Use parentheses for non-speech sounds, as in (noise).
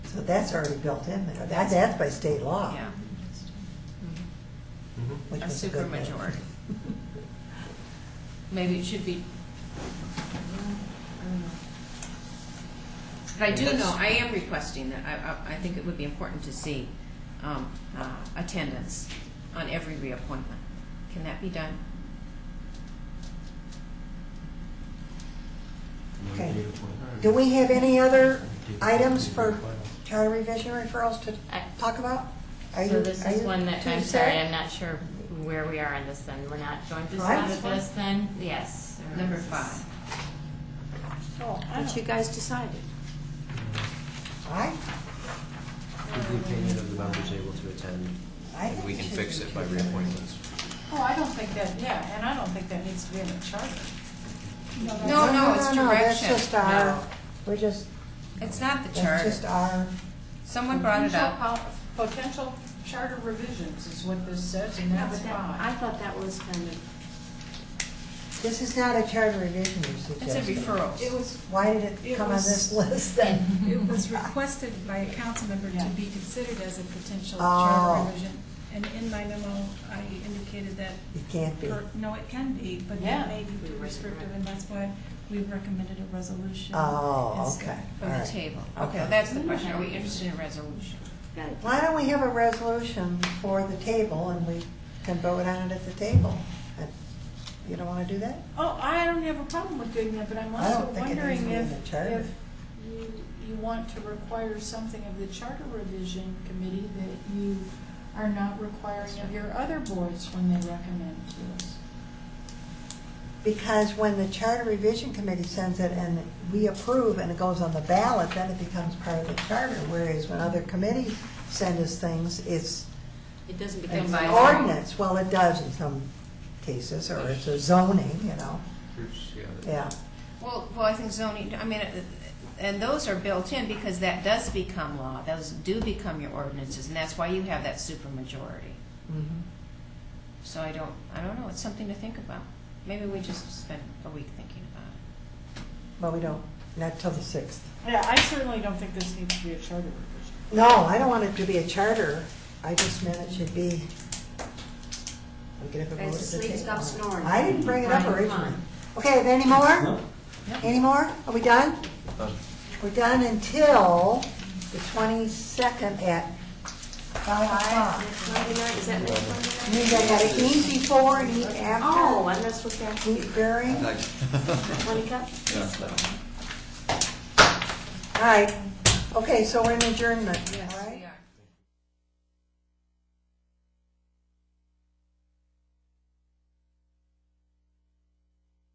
So that's already built in there. That, that's by state law. Yeah, Mm-hmm. which a was good thing. supermajority. (laughs) Maybe it should be. I don't know. But I do know, I am requesting that, I, I, I think it would be important to see, um, uh, attendance on every reappointment. Can that be done? Okay. Do we have any other items for charter revision referrals to I- talk about? Are So you- this are is you one that, too I'm sorry, set? I'm not sure where we are on this then. We're not joint This pursuit last with one? this then? Yes. Number This is- five. Oh, I But you don't- guys decided. I, Give the opinion of the members able to attend, I and think we it can should fix be it by two years. reappointments. Oh, I don't think that, yeah, and I don't think that needs to be in the charter. No, no, it's no, That's direction. just our, No. we're just, It's not the that's just charter. our, Someone brought it Potential up. pol- Potential charter revisions is what this says, and Yeah, that's but that- I fine. thought that was kind of, this is not a charter revision you It's a suggested. It referral. was, Why did it It come on was- this list (laughs) then? It (laughs) was requested by a council member Mm-hmm. Yeah. to be considered as a potential Oh. charter revision. And in my memo, I indicated that, It can't be. per- no, it can be, but Yeah. it may be too restrictive, and that's why we recommended a resolution. Oh, instead. okay, For all the right. table. Okay. Okay, that's the question. Are we interested in a resolution? got it. Why don't we have a resolution for the table and we can vote on it at the table? Uh, You don't want to do that? oh, I don't have a problem with doing that, but I'm I don't also think it needs to wondering be in if, the charter. if you, you want to require something of the charter revision committee that you are not requiring of your other boards when they recommend to us. Because when the Charter Revision Committee sends it and we approve and it goes on the ballot, then it becomes part of the charter. Whereas when other committees send us things, it's It doesn't become it's by an law. ordinance. Well, it does in some cases, or it's a zoning, you know, Groups, yeah. Well, well, I think zoning, I mean, uh, and those are built in because that does become law. Those do become your ordinances, and that's why you have that supermajority. Mhm. So I don't, I don't know, it's something to think about. Maybe we just spend a week thinking about it. But we don't, not till the 6th. Yeah, I certainly don't think this needs to be a charter revision. No, I don't want it to be a charter. I just meant it should be, we could have a vote at Guys, the sleep, table. stop snoring. I didn't bring it up Brian, come originally. on. Okay, any more? Any more? Are we done? Done. We're done until the 22nd at 5 o'clock. Next Monday night, is that next Monday night? Means I gotta eat before and eat Oh, after. I'm not supposed to have Eat during. All twenty cups? right. Okay, so we're in adjournment, all right?